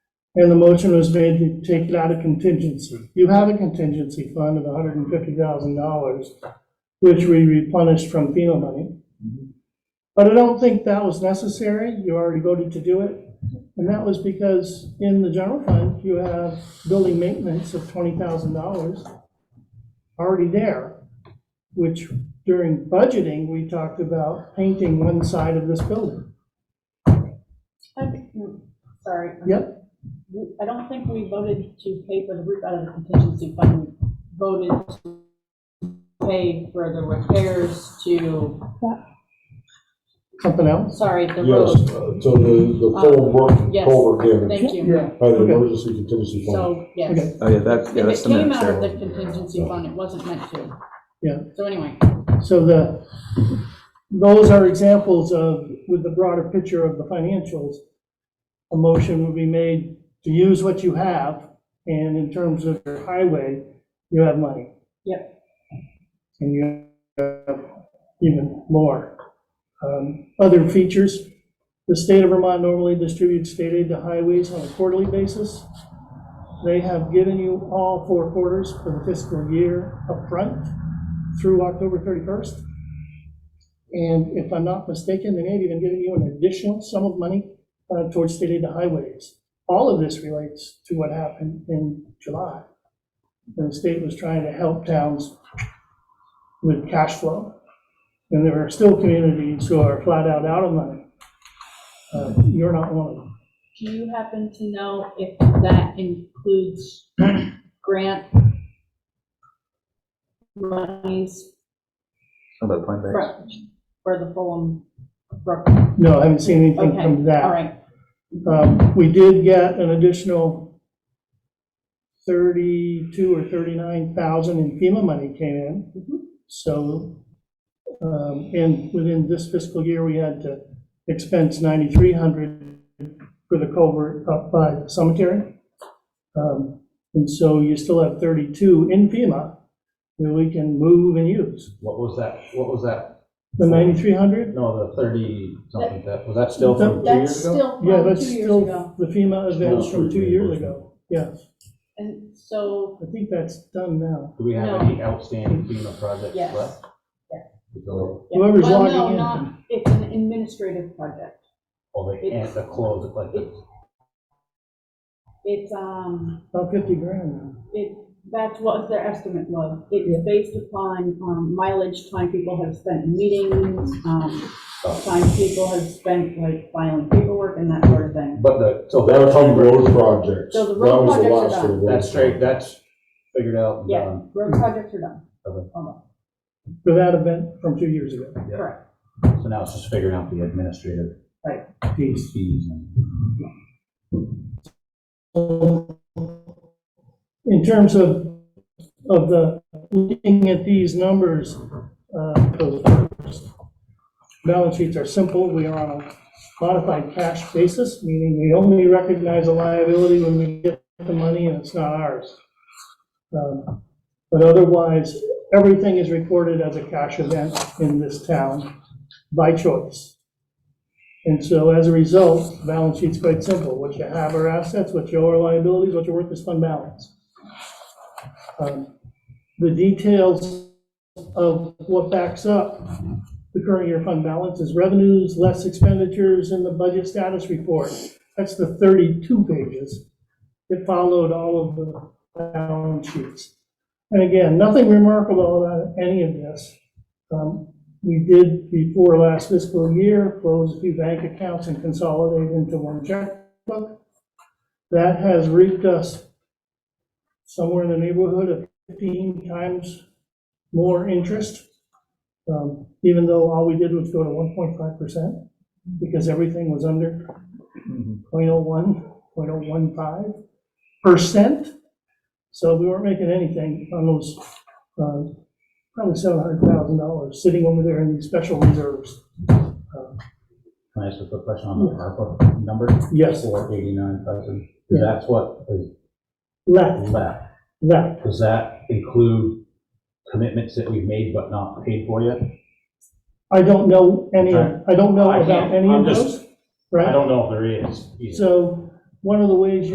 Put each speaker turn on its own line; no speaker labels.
And the motion was made to take it out of contingency. You have a contingency fund of hundred and fifty thousand dollars, which we replenished from FEMA money. But I don't think that was necessary. You already voted to do it. And that was because in the general fund, you have building maintenance of twenty thousand dollars already there, which during budgeting, we talked about painting one side of this building.
Okay, mm, Sorry.
Yep,
We- I don't think we voted to pay for the roof out of the contingency fund. We voted to pay for the repairs to,
something else?
sorry, the
Yes,
road.
uh, to the, the full work,
Yes,
culvert damage,
Thank you.
by the
Okay.
emergency contingency fund.
So, yes.
Okay.
Oh, yeah, that, yeah,
If
that's
it
the
came
minutes
out of the
there.
contingency fund, it wasn't meant to.
Yeah.
So anyway,
So the, those are examples of, with the broader picture of the financials, a motion would be made to use what you have, and in terms of your highway, you have money.
Yep.
And you have even more. Um, Other features, the state of Vermont normally distributes state aid to highways on a quarterly basis. They have given you all four quarters for the fiscal year upfront through October 31st. And if I'm not mistaken, they may have even given you an additional sum of money uh, towards state aid to highways. All of this relates to what happened in July. when The state was trying to help towns with cash flow. And there are still communities who are flat out out of money. Uh, You're not one of them.
do you happen to know if that includes grant monies
Oh, the point there.
for for the Fulham Brook?
No, I haven't seen anything
Okay,
from
all
that.
right.
Um, We did get an additional 32 or 39,000 in FEMA money came
Mhm.
in. So, um, and within this fiscal year, we had to expense 9,300 for the culvert up by the cemetery. Um, And so you still have 32 in FEMA that we can move and use.
What was that, what was that,
The 9,300,
no, the thirty something, that, was that still from two
That's
years ago?
still
yeah,
from
that's
two years
still
ago.
the FEMA events from two years ago. Yeah,
And so,
I think that's done now.
Do we have any outstanding FEMA projects
yes.
left?
yes.
So,
yeah.
Whoever's
Well,
logging
no,
in.
not- It's an administrative project.
Or oh, they can't, they close it like this?
It's, um,
About 50 grand now.
it, that's what their estimate was. It's based upon um, mileage, time people have spent in meetings, um, time people have spent like filing paperwork and that sort of thing.
But the, so
That was
that's,
on road projects.
So the
That
road
was the
projects are
last for the
done.
road
that's straight, that's figured out um, and
Yeah,
done.
road projects are done.
Okay.
Almost,
For that event from two years ago.
Yeah.
Correct.
So now it's just figuring out the administrative
Peace.
fees and.
In terms of, of the, looking at these numbers, uh, those numbers, balance sheets are simple. We are on a modified cash basis, meaning we only recognize a liability when we get the money and it's not ours. Um, But otherwise, everything is recorded as a cash event in this town by choice. And so as a result, the balance sheet's quite simple. What you have are assets, what you owe are liabilities, what you're worth is fund balance. Um, The details of what backs up the current year fund balance is revenues, less expenditures, and the budget status report. That's the 32 pages that followed all of the balance sheets. And again, nothing remarkable about any of this. Um, we did before last fiscal year, close a few bank accounts and consolidate into one checkbook. That has reaped us somewhere in the neighborhood of 15 times more interest, um, even though all we did was go to 1.5%, because everything was under
Mm-hmm.
0.01, 0.015%. So we weren't making anything on those um, probably seven hundred thousand dollars sitting over there in these special reserves.
Can I ask a quick question on the ARPA number?
Yes.
Four eighty-nine thousand,
Yeah.
that's what is
Left,
left.
left.
Does that include commitments that we've made but not paid for yet?
I don't know any, of- I don't know
I
about
can't-
Oh, any
I'm
of
just-
those,
I
right?
don't know if there is. either.
So one of the ways